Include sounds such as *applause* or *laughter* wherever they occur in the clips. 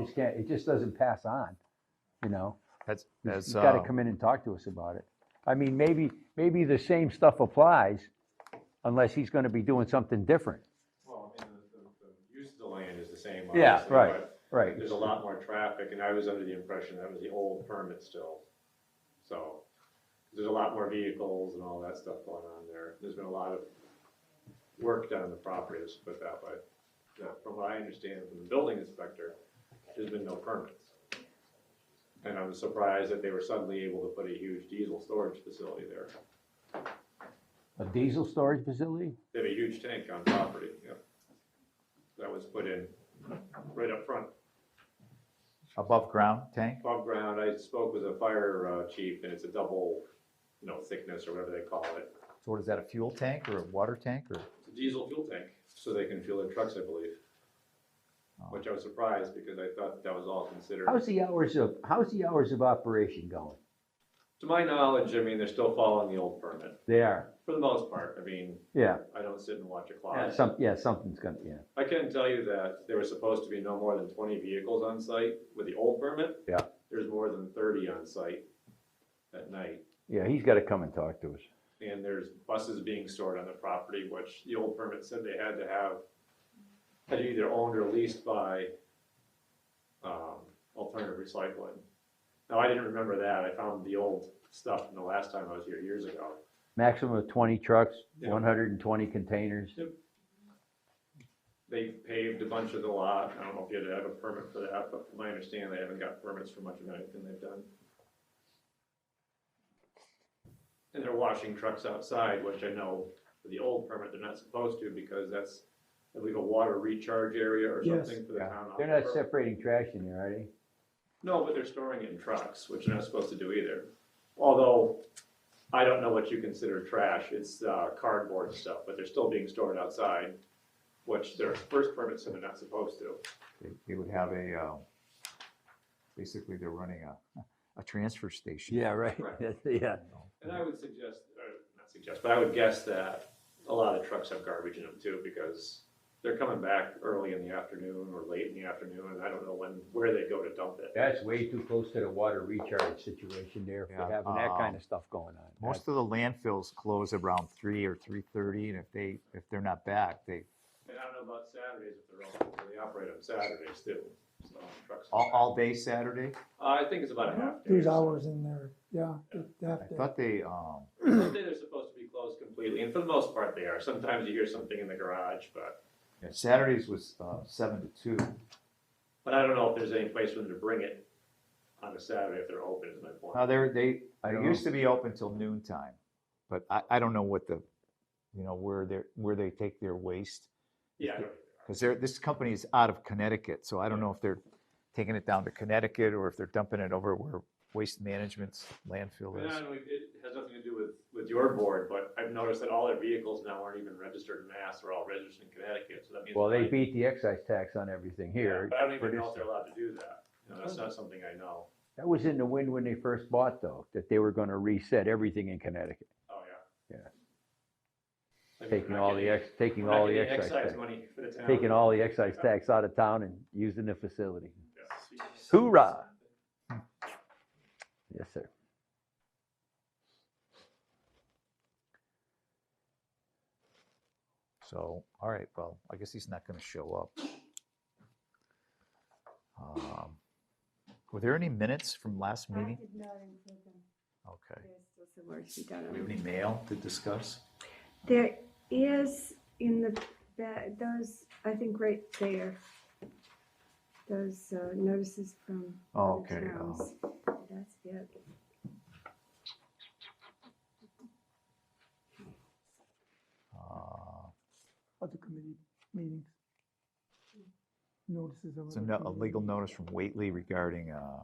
just can't, it just doesn't pass on, you know? That's, You've- that's, You've got to um, come in and talk to us about it. I mean, maybe, maybe the same stuff applies unless he's going to be doing something different. Well, I mean, the, the, the use of the land is the same, Yeah, obviously, right, but Right. There's a lot more traffic, and I was under the impression that was the old permit still, so, there's a lot more vehicles and all that stuff going on there, there's been a lot of work done on the property, let's put it that way. Now, from what I understand from the building inspector, there's been no permits. And I'm surprised that they were suddenly able to put a huge diesel storage facility there, A diesel storage facility? they have a huge tank on property, yeah. That was put in right up front. above ground tank? above ground, I spoke with a fire uh, chief, and it's a double, you know, thickness or whatever they call it. So what is that, a fuel tank or a water tank or? It's a diesel fuel tank, so they can fuel their trucks, I believe. Oh. Which I was surprised, because I thought that was all considered. How's the hours of, how's the hours of operation going? To my knowledge, I mean, they're still following the old permit, They are, for the most part. I mean, yeah. I don't sit and watch a Yeah, clock. some, yeah, something's gonna, yeah. I can tell you that there was supposed to be no more than twenty vehicles on site with the old permit. Yeah. There's more than thirty on site at night. Yeah, he's got to come and talk to us. and there's buses being stored on the property, which the old permit said they had to have, had to either owned or leased by, um, alternative recycling. Now, I didn't remember that, I found the old stuff from the last time I was here years ago. Maximum of twenty trucks, Yeah. one hundred and twenty containers. They paved a bunch of the lot, I don't know if you had to have a permit for that, but from my understanding, they haven't got permits for much of anything they've done. And they're washing trucks outside, which I know for the old permit, they're not supposed to because that's, I believe, a water recharge area or Yes. something for the Yeah. town. They're off not the permit. separating trash in there, are they? No, but they're storing it in trucks, which they're not supposed to do either. Although, I don't know what you consider trash, it's uh, cardboard stuff, but they're still being stored outside, which their first permit said they're not supposed to. They, they would have a, uh, basically they're running a, a transfer station. right. Right. *laughs* Yeah. And I would suggest, or not suggest, but I would guess that a lot of trucks have garbage in them too, because they're coming back early in the afternoon or late in the afternoon, and I don't know when, where they go to dump it. That's way too close to the water recharge situation there, if Yeah, we're having that kind um, of stuff going on. Most of the landfills close around three or three thirty, and if they, if they're not back, they, And I don't know about Saturdays if they're open, but they operate on Saturdays too, so trucks. Uh, all, all day Saturday? I think it's about a half day. *clears throat* There's hours in there, yeah, I half day. thought they, um, Someday they're supposed to be closed completely, and for the most part they are. Sometimes you hear something in the garage, but, yeah, Saturdays was, uh, seven to two. but I don't know if there's any place for them to bring it on a Saturday if they're open, is my point. Uh, they're, they, I It don't used know. to be open till noon time, but I, I don't know what the, you know, where they're, where they take their waste. Yeah, I don't- Because they're, this company is out of Connecticut, so I don't know if they're taking it down to Connecticut or if they're dumping it over where Waste Management's landfill And I is. don't know, it has nothing to do with, with your board, but I've noticed that all their vehicles now aren't even registered in Mass, they're all registered in Connecticut, so that means. Well, they like- beat the excise tax on everything Yeah, here. Oh. But I don't even for know this if they're stuff. allowed to do that, you know, that's not something I know, That was in the wind when they first bought though, that they were gonna reset everything in Connecticut, oh, yeah. Yeah. I mean, taking we're not all the getting- ex, taking we're not all the getting excise tax. money for the town. Taking all the excise tax out of town and using the facility. Yeah. Hoorah! Yes, sir. So, all right, well, I guess he's not gonna show up. Um, Were there any minutes from last I meeting? did not include them. Okay. There's still some work to be done Do on we have any mail to discuss? them. There is in the, ba- those, I think right there, those uh, notices from Oh, other okay, oh. towns. That's it. Uh, Other committee meetings. Notices of. It's a other no- a committee legal meetings. notice from Whately regarding uh,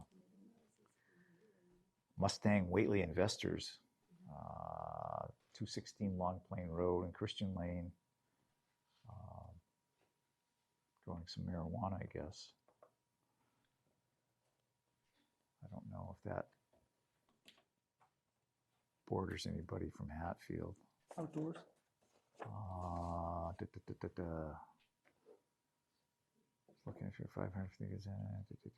Mustang Whately Investors, uh, 216 Long Plain Road and Christian Lane. um, Growing some marijuana, I guess. I don't know if that borders anybody from Hatfield. Outdoors. Uh, duh, duh, duh, duh, duh. looking if you're five hundred figures in.